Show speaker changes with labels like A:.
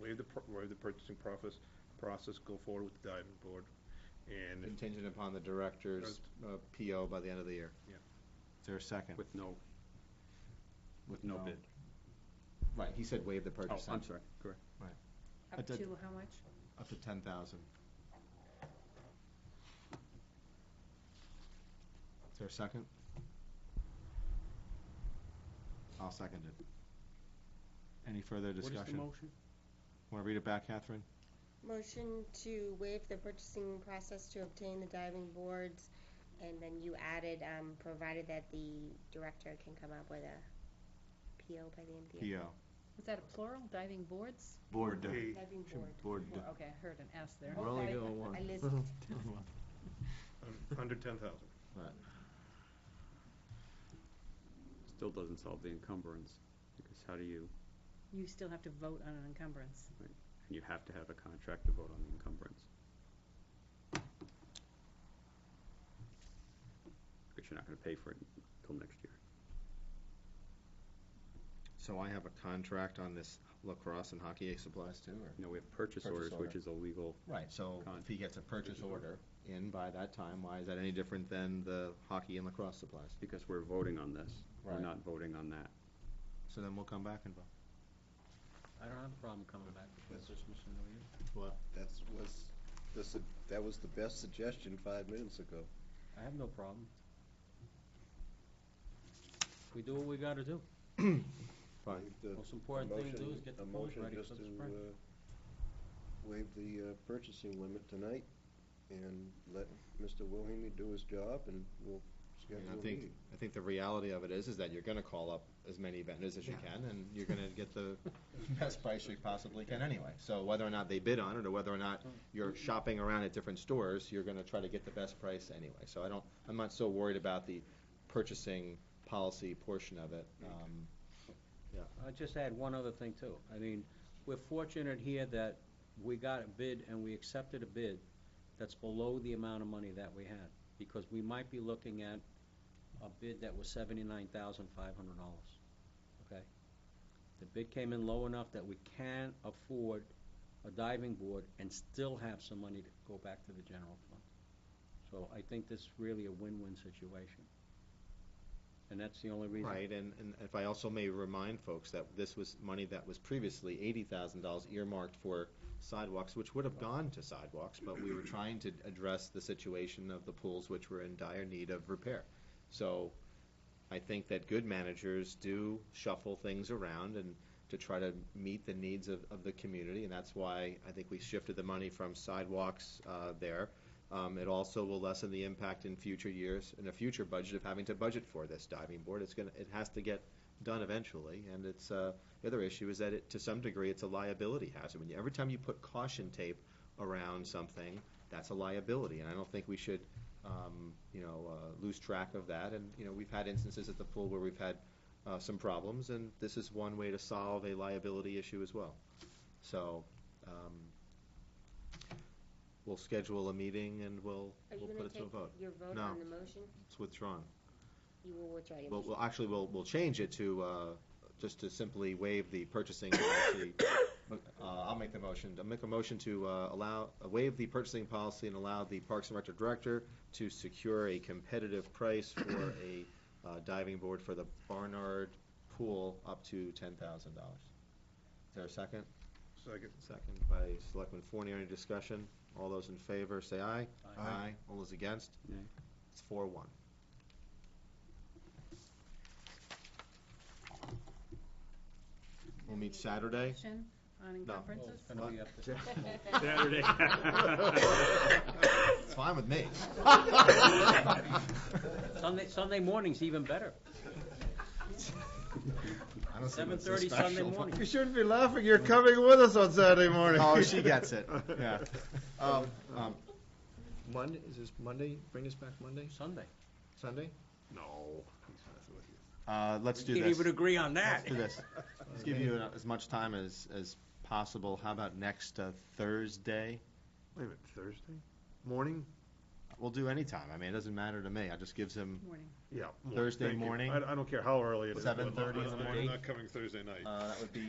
A: waive the, pr- waive the purchasing process, process, go forward with the diving board. And
B: Contingent upon the director's uh, PO by the end of the year.
A: Yeah.
B: Is there a second?
C: With no, with no
B: No.
C: bid.
B: Right, he said waive the
C: Oh,
B: purchase.
C: I'm sorry, correct.
B: I
D: Up
B: did-
D: to how much?
B: Up to ten thousand. Is there a second? I'll second it. Any further discussion?
C: What is the motion?
B: Want to read it back, Catherine?
E: Motion to waive the purchasing process to obtain the diving boards, and then you added, um, provided that the director can come up with a PO by the end of the year.
B: PO.
D: Was that a plural, diving boards?
B: Board.
A: Hey,
E: Diving board.
B: Board.
D: Or- Okay, I heard an S there.
B: We're only doing
E: I
B: one.
E: listened.
A: un- um, under ten thousand.
C: Still doesn't solve the encumbrance, because how do you,
D: You still have to vote on an encumbrance.
C: and you have to have a contract to vote on the encumbrance. Because you're not gonna pay for it until next year.
B: So I have a contract on this lacrosse and hockey supplies too, or?
C: No, we have purchase
B: Purchase
C: orders, which
B: order.
C: is illegal.
B: Right, so if
C: Contract.
B: he gets a purchase order in by that time, why is that any different than the hockey and lacrosse supplies?
C: Because we're voting on this, we're
B: Right.
C: not voting on that.
B: So then we'll come back and vote.
F: I don't have a problem coming back before Christmas and New Year.
B: What?
G: That's was, the su- that was the best suggestion five minutes ago.
F: I have no problem. We do what we gotta do.
B: Fine.
G: Waive the-
F: Most important
G: a
F: thing to do
G: motion-
F: is get the
G: a
F: pools
G: motion
F: ready
G: just
F: for the
G: to,
F: spring.
G: uh, Waive the uh, purchasing limit tonight and let Mr. Wilhelmie do his job and we'll
B: I mean,
G: schedule a
B: I think,
G: meeting.
B: I think the reality of it is, is that you're gonna call up as many vendors as you can, and you're gonna get the best price you possibly can anyway. So whether or not they bid on it, or whether or not you're shopping around at different stores, you're gonna try to get the best price anyway. So I don't, I'm not so worried about the purchasing policy portion of it. Um,
F: I just add one other thing too. I mean, we're fortunate here that we got a bid and we accepted a bid that's below the amount of money that we had, because we might be looking at a bid that was seventy-nine thousand five hundred dollars, okay? The bid came in low enough that we can afford a diving board and still have some money to go back to the general fund. So I think this is really a win-win situation. And that's the only reason.
B: Right, and, and if I also may remind folks that this was money that was previously eighty thousand dollars earmarked for sidewalks, which would have gone to sidewalks, but we were trying to address the situation of the pools, which were in dire need of repair. So I think that good managers do shuffle things around and to try to meet the needs of, of the community, and that's why I think we shifted the money from sidewalks, uh, there. Um, it also will lessen the impact in future years, in a future budget of having to budget for this diving board. It's gonna, it has to get done eventually, and it's, uh, the other issue is that it, to some degree, it's a liability hazard. When you, every time you put caution tape around something, that's a liability, and I don't think we should, um, you know, uh, lose track of that. And, you know, we've had instances at the pool where we've had, uh, some problems, and this is one way to solve a liability issue as well. So, um, we'll schedule a meeting and we'll,
E: Are you
B: we'll put
E: gonna
B: it to a
E: take
B: vote.
E: your vote
B: No.
E: on the motion?
B: It's withdrawn.
E: You will withdraw your
B: Well,
E: motion.
B: we'll, actually, we'll, we'll change it to, uh, just to simply waive the purchasing policy. Uh, I'll make the motion, I'll make a motion to, uh, allow, uh, waive the purchasing policy and allow the Parks and Rec Director to secure a competitive price for a, uh, diving board for the Barnard Pool up to ten thousand dollars. Is there a second?
A: Second.
B: Second by Selectman Forney, any discussion? All those in favor, say aye.
F: Aye.
B: All those against?
C: Nay.
B: It's four one. We'll meet Saturday.
D: Motion on encumbrances?
F: Well, Oh, it's gonna be up to-
C: Saturday.
B: It's fine with me.
F: Sunday, Sunday morning's even better.
B: I don't see what's so
F: 7:30 Sunday
B: special.
F: morning.
A: You shouldn't be laughing, you're coming with us on Saturday morning.
B: Oh, she gets it, yeah. Um, um,
G: Monday, is this Monday, bring us back Monday,
F: Sunday.
B: Sunday?
A: No. he's messing with you.
B: Uh, let's do
F: You
B: this.
F: Can't even agree on that.
B: Let's do this. Let's give you as much time as, as possible. How about next uh, Thursday?
A: Wait a minute, Thursday morning?
B: We'll do any time. I mean, it doesn't matter to me. I just gives him,
D: Morning.
A: Yeah. mor-
B: Thursday
A: thank you.
B: morning?
A: I, I don't care how early it is.
B: 7:30 in the
A: I'm not-
B: morning?
A: I'm not coming Thursday night.
B: uh, that would be